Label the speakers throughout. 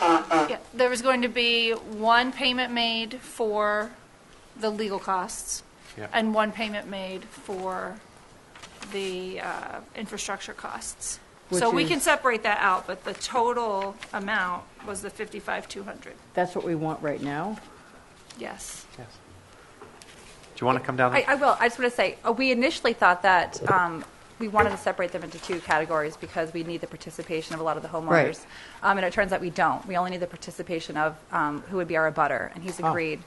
Speaker 1: Yeah, There was going to be one payment made for the legal costs
Speaker 2: Yep.
Speaker 1: and one payment made for the uh, infrastructure costs. So
Speaker 3: Which
Speaker 1: we
Speaker 3: is-
Speaker 1: can separate that out, but the total amount was the 55,200,
Speaker 3: That's what we want right now?
Speaker 1: yes.
Speaker 2: Yes. Do you want to come down?
Speaker 4: I, I will. I just want to say, uh, we initially thought that um, we wanted to separate them into two categories because we need the participation of a lot of the homeowners.
Speaker 3: Right.
Speaker 4: Um, and it turns out we don't. We only need the participation of um, who would be our abutter, and
Speaker 3: Oh.
Speaker 4: he's agreed.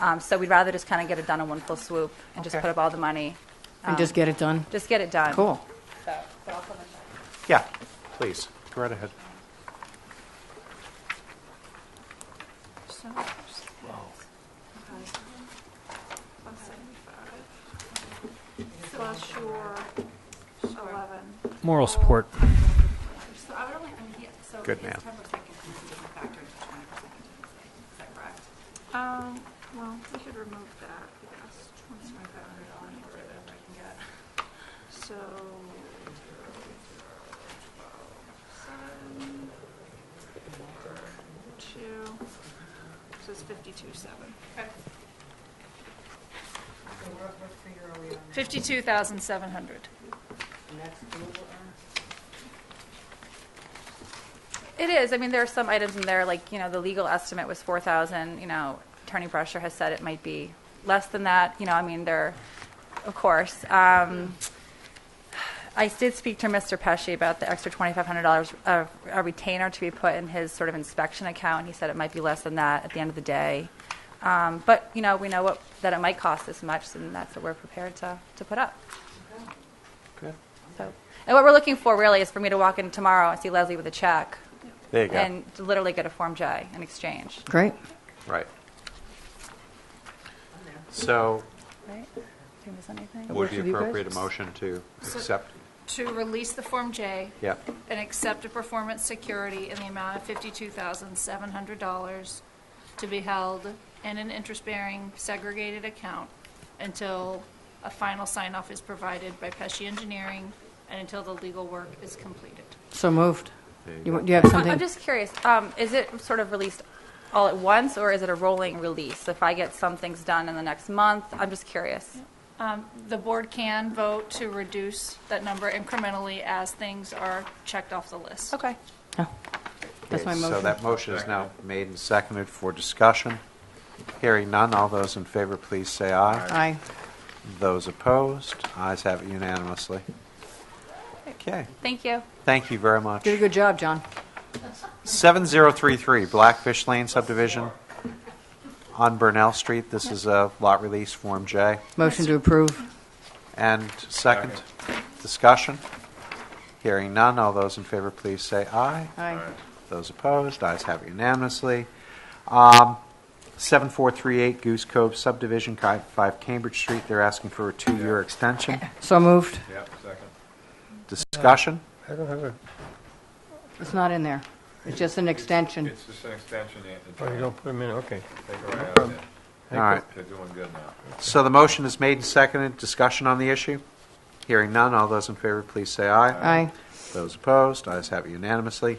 Speaker 4: Um, so we'd rather just kind of get it done in one full swoop and just
Speaker 2: Okay.
Speaker 4: put up all the money.
Speaker 3: And
Speaker 4: Um,
Speaker 3: just get it done?
Speaker 4: Just get it done.
Speaker 3: Cool.
Speaker 4: So, but I'll come and check.
Speaker 2: Yeah, please, go right ahead.
Speaker 1: So- One seventy-five. Plus your 11.
Speaker 5: Moral support.
Speaker 6: So I would only, I mean, he, so
Speaker 2: Good
Speaker 6: his
Speaker 2: man.
Speaker 6: ten percent contingency is factored into twenty percent contingency, is that correct?
Speaker 1: Um, well, we should remove that, yes,
Speaker 6: It's twenty-five hundred dollars, or whatever I can get.
Speaker 1: so. seven, Two, so it's fifty-two, seven.
Speaker 6: So what, what figure are we on?
Speaker 1: Fifty-two thousand seven hundred.
Speaker 4: It is. I mean, there are some items in there, like, you know, the legal estimate was 4,000, you know, Attorney Brusher has said it might be less than that, you know, I mean, there, of course. Um, I did speak to Mr. Pesci about the extra $2,500 of a retainer to be put in his sort of inspection account. He said it might be less than that at the end of the day. Um, But, you know, we know what, that it might cost this much, and that's what we're prepared to, to put up.
Speaker 2: Good.
Speaker 4: So, and what we're looking for really is for me to walk in tomorrow and see Leslie with a check
Speaker 2: There you go.
Speaker 4: and to literally get a Form J in exchange.
Speaker 3: Great.
Speaker 2: Right. So
Speaker 4: Right? Did we miss anything?
Speaker 2: it would
Speaker 3: works
Speaker 2: be
Speaker 3: with you guys?
Speaker 2: appropriate a motion to accept,
Speaker 1: To release the Form J.
Speaker 2: yeah,
Speaker 1: and accept a performance security in the amount of $52,700 to be held in an interest-bearing segregated account until a final sign-off is provided by Pesci Engineering and until the legal work is completed.
Speaker 3: So moved.
Speaker 2: There you
Speaker 3: You
Speaker 2: go.
Speaker 3: want- Do you have
Speaker 4: I'm
Speaker 3: something?
Speaker 4: just curious, um, is it sort of released all at once, or is it a rolling release? If I get some things done in the next month, I'm just curious.
Speaker 1: Um, The board can vote to reduce that number incrementally as things are checked off the list.
Speaker 4: Okay.
Speaker 3: Oh. That's my
Speaker 2: Okay, So
Speaker 3: motion.
Speaker 2: that motion is now made and seconded for discussion. Hearing none, all those in favor, please say aye.
Speaker 3: Aye.
Speaker 2: Those opposed, ayes have it unanimously. Okay,
Speaker 4: Thank you.
Speaker 2: thank you very much.
Speaker 3: Did a good job, John.
Speaker 2: 7033 Blackfish Lane subdivision on Burnell Street. This is a lot release, Form J.
Speaker 3: Motion to approve.
Speaker 2: And second, discussion. Hearing none, all those in favor, please say aye.
Speaker 3: Aye.
Speaker 2: Those opposed, ayes have it unanimously. Um, 7438 Goose Cove subdivision, Ki- 5 Cambridge Street, they're asking for a two-year extension.
Speaker 3: So moved.
Speaker 7: Yep, second.
Speaker 2: Discussion?
Speaker 7: I don't have a.
Speaker 3: It's not in there. It's just an extension.
Speaker 7: It's just an extension, Anthony.
Speaker 8: Oh, you don't put them in, okay.
Speaker 7: Take it right out there.
Speaker 2: All right.
Speaker 7: They're doing good now.
Speaker 2: So the motion is made and seconded. Discussion on the issue? Hearing none, all those in favor, please say aye.
Speaker 3: Aye.
Speaker 2: Those opposed, ayes have it unanimously.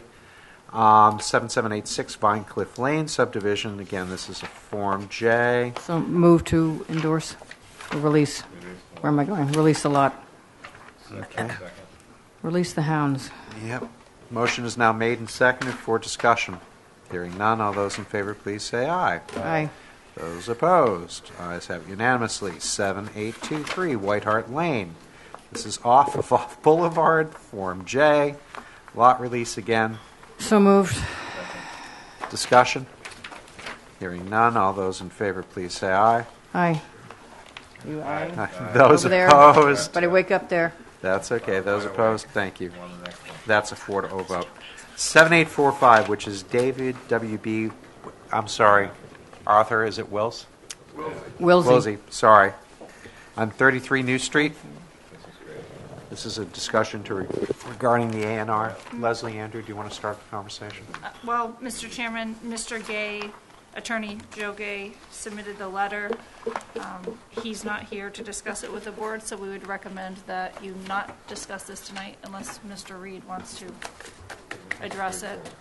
Speaker 2: Um, 7786 Vine Cliff Lane subdivision, again, this is a Form J.
Speaker 3: So move to endorse, or release. Where am I going? Release the lot.
Speaker 7: Second, second.
Speaker 3: Release the hounds.
Speaker 2: Yep. Motion is now made and seconded for discussion. Hearing none, all those in favor, please say aye.
Speaker 3: Aye.
Speaker 2: Those opposed, ayes have it unanimously. 7823 White Hart Lane. This is off of Off Boulevard, Form J. Lot release again.
Speaker 3: So moved.
Speaker 2: Discussion? Hearing none, all those in favor, please say aye.
Speaker 3: Aye. You aye?
Speaker 2: Those
Speaker 3: Over there.
Speaker 2: opposed?
Speaker 3: Buddy, wake up there.
Speaker 2: That's okay, those opposed, thank you.
Speaker 7: On the next one.
Speaker 2: That's a four to oh vote. 7845, which is David WB, I'm sorry, Arthur, is it Wills?
Speaker 3: Wilsey.
Speaker 2: Wilsey, sorry. On 33 New Street. This is a discussion to re- regarding the A and R. Leslie, Andrew, do you want to start the conversation?
Speaker 1: Well, Mr. Chairman, Mr. Gay, Attorney Joe Gay submitted the letter. Um, He's not here to discuss it with the board, so we would recommend that you not discuss this tonight unless Mr. Reed wants to address it.